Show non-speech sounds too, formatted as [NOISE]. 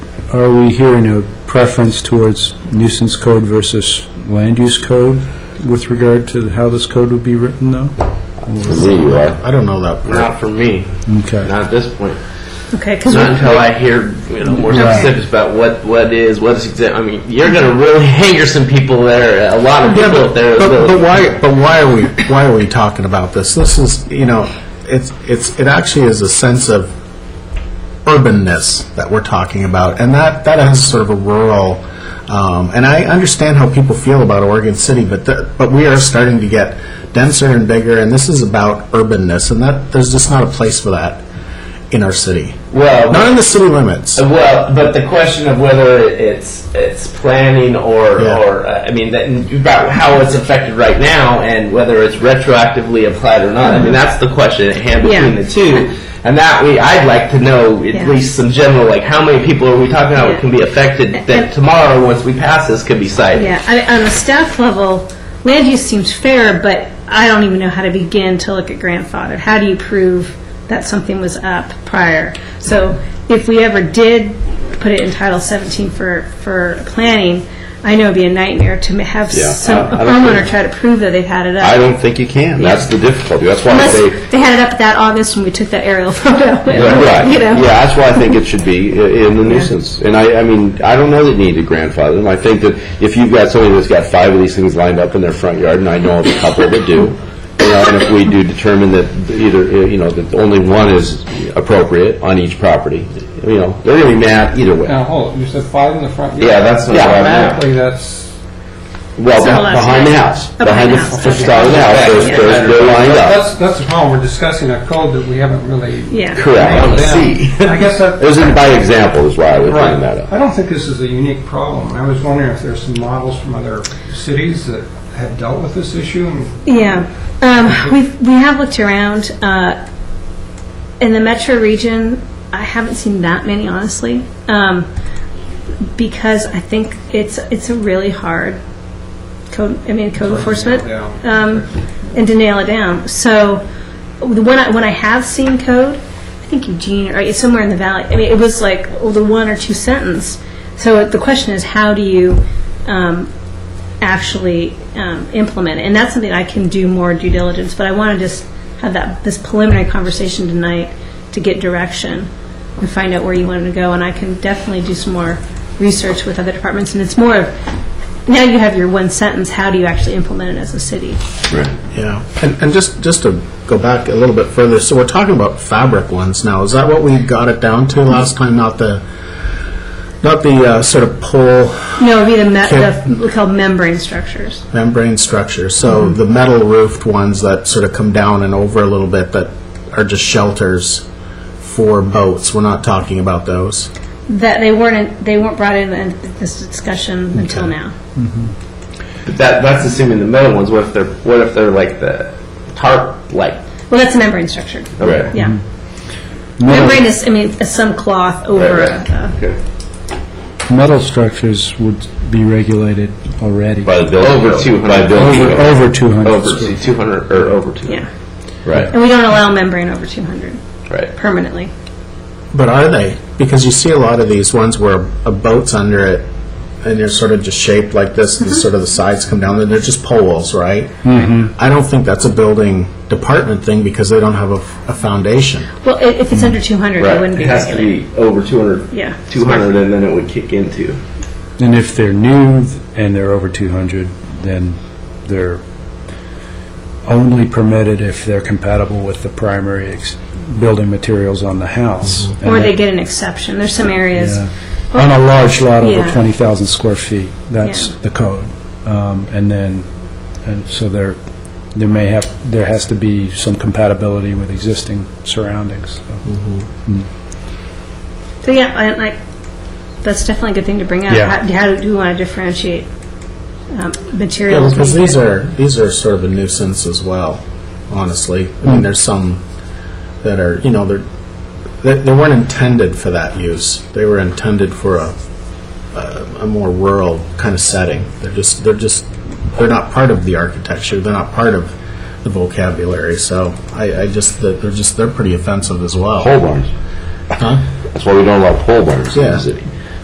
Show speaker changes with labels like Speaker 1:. Speaker 1: are we hearing a preference towards nuisance code versus land use code with regard to how this code would be written, though?
Speaker 2: For me, you are.
Speaker 3: I don't know that part.
Speaker 4: Not for me,
Speaker 1: Okay.
Speaker 4: not at this point.
Speaker 5: Okay, because
Speaker 4: Not until I hear, you know, more
Speaker 1: Right.
Speaker 4: specifics about what, what is, what is exact, I mean, you're gonna really [LAUGHS] anger some people there, a lot of
Speaker 3: Yeah,
Speaker 4: people
Speaker 3: but,
Speaker 4: there.
Speaker 3: but, but why? But why are we? Why are we talking about this? This is, you know, it's it's it actually is a sense of urbanness that we're talking about, and that that has sort of a rural. Um, and I understand how people feel about Oregon City, but the, but we are starting to get denser and bigger, and this is about urbanness, and that there's just not a place for that in our city.
Speaker 4: Well,
Speaker 3: Not in the city limits.
Speaker 4: Well, but the question of whether it's it's planning or
Speaker 3: Yeah.
Speaker 4: or uh, I mean that, about how it's affected right now and whether it's retroactively applied or not. I mean that's the question at hand between
Speaker 5: Yeah.
Speaker 4: the two, and that we I'd like to know at
Speaker 5: Yeah.
Speaker 4: least some general like how many people are we talking about
Speaker 5: Yeah.
Speaker 4: can be affected
Speaker 5: And-
Speaker 4: that tomorrow once we pass this could be cited.
Speaker 5: Yeah, I, on the staff level, land use seems fair, but I don't even know how to begin to look at grandfathered. How do you prove that something was up prior? So if we ever did put it in Title 17 for, for planning, I know it'd be a nightmare to ma- have
Speaker 2: Yeah,
Speaker 5: some, a
Speaker 2: I- I don't
Speaker 5: homeowner
Speaker 2: think-
Speaker 5: try to prove that they've had it
Speaker 2: I
Speaker 5: up.
Speaker 2: don't think you can. That's the difficulty. That's why I
Speaker 5: [LAUGHS] Unless
Speaker 2: say.
Speaker 5: they had it up that August when we took that aerial [LAUGHS] photo.
Speaker 2: Right.
Speaker 5: You know?
Speaker 2: Yeah, that's why I think it should be i- in the nuisance. And I, I mean, I don't know that you need to grandfather them. I think that if you've got somebody that's got five of these things lined up in their front yard, and I know of a couple that do, you know, and if we do determine that either, uh, you know, that only one is appropriate on each property, you know, they're going to be mad either way.
Speaker 6: Now, hold, it. you said five in the front yard?
Speaker 2: Yeah, that's not
Speaker 6: Yeah,
Speaker 2: what I meant.
Speaker 6: Automatically, that's,
Speaker 2: Well,
Speaker 5: So
Speaker 2: beh-
Speaker 5: less
Speaker 2: behind the
Speaker 5: than-
Speaker 2: house,
Speaker 5: Oh,
Speaker 2: behind the
Speaker 5: behind the house,
Speaker 2: f-
Speaker 5: okay.
Speaker 2: facade of the house, those-
Speaker 5: Yeah.
Speaker 2: those- they're lined up.
Speaker 6: that's, that's the problem, we're discussing a code that we haven't really.
Speaker 5: Yeah.
Speaker 2: Correct.
Speaker 6: nailed down. I guess that.
Speaker 2: It was in- by example is why I was bringing that
Speaker 6: Right.
Speaker 2: up.
Speaker 6: I don't think this is a unique problem. I was wondering if there's some models from other cities that have dealt with this issue and
Speaker 5: Yeah, um, we've, we have looked around, uh, in the metro region, I haven't seen that many, honestly, um, because I think it's, it's a really hard code, I mean, code enforcement.
Speaker 6: nail it
Speaker 5: Um, and to nail it down. So, the one I, when I have seen code, I think Eugene, or it's somewhere in the valley, I mean, it was like the one or two sentence. So the question is, how do you, um, actually um, implement it. And that's something I can do more due diligence, but I want to just have that, this preliminary conversation tonight to get direction and find out where you want to go, and I can definitely do some more research with other departments, and it's more of, now you have your one sentence, how do you actually implement it as a city?
Speaker 3: Yeah, and, and just, just to go back a little bit further, so we're talking about fabric ones now, is that what we got it down to last time, not the, not the uh, sort of pole
Speaker 5: No, it'd be the, me-
Speaker 3: Okay.
Speaker 5: the, we call membrane structures.
Speaker 3: membrane structure? So the metal roofed ones that sort of come down and over a little bit that are just shelters for boats, we're not talking about those.
Speaker 5: That they weren't, in- they weren't brought in in this discussion until now.
Speaker 4: But that that's assuming the metal ones. What if they're what if they're like the tarp like
Speaker 5: Well, that's a membrane structure,
Speaker 4: okay. Mm-hmm.
Speaker 5: yeah. Membrane is, I mean, is some cloth over uh,
Speaker 4: Right, right.
Speaker 5: a- a
Speaker 4: Okay.
Speaker 1: Metal structures would be regulated already.
Speaker 2: By the building.
Speaker 4: Over 200.
Speaker 2: By building.
Speaker 1: Over over 200
Speaker 4: Over
Speaker 1: square
Speaker 4: two- 200 or over 200.
Speaker 5: Yeah,
Speaker 2: Right.
Speaker 5: and we don't allow membrane over 200
Speaker 4: Right.
Speaker 5: permanently.
Speaker 3: But are they? Because you see a lot of these ones where a boat's under it, and they're sort of just shaped like this, and sort of the sides come down, and they're just poles, right? Mm-hmm. I don't think that's a building department thing, because they don't have a, a foundation.
Speaker 5: Well, i- if it's under 200, it
Speaker 4: Right,
Speaker 5: wouldn't be
Speaker 4: it has to
Speaker 5: regulated.
Speaker 4: be over 200.
Speaker 5: Yeah.
Speaker 4: 200, and then it would kick into.
Speaker 1: And if they're new and they're over 200, then they're only permitted if they're compatible with the primary ex- building materials on the house.
Speaker 5: Or
Speaker 1: And
Speaker 5: they get an exception. There's some areas,
Speaker 1: Yeah. On a large lot over
Speaker 5: Yeah.
Speaker 1: 20,000 square feet, that's
Speaker 5: Yeah.
Speaker 1: the code. Um, And then, and so there, there may have, there has to be some compatibility with existing surroundings. so.
Speaker 5: so yeah, I, like, that's definitely a good thing to bring up.
Speaker 1: Yeah.
Speaker 5: How how do you want to differentiate um,
Speaker 3: Yeah,
Speaker 5: materials?
Speaker 3: because these are, these are sort of a nuisance as well, honestly. I mean, there's some that are, you know, they're, they they weren't intended for that use. They were intended for a, a a more rural kind of setting. They're just, they're just, they're not part of the architecture, they're not part of the vocabulary, so I, I just, they're they're just, they're pretty offensive as well.
Speaker 2: Pole barns.
Speaker 3: Huh?
Speaker 2: That's why we don't allow pole barns in
Speaker 3: Yeah.
Speaker 2: the city.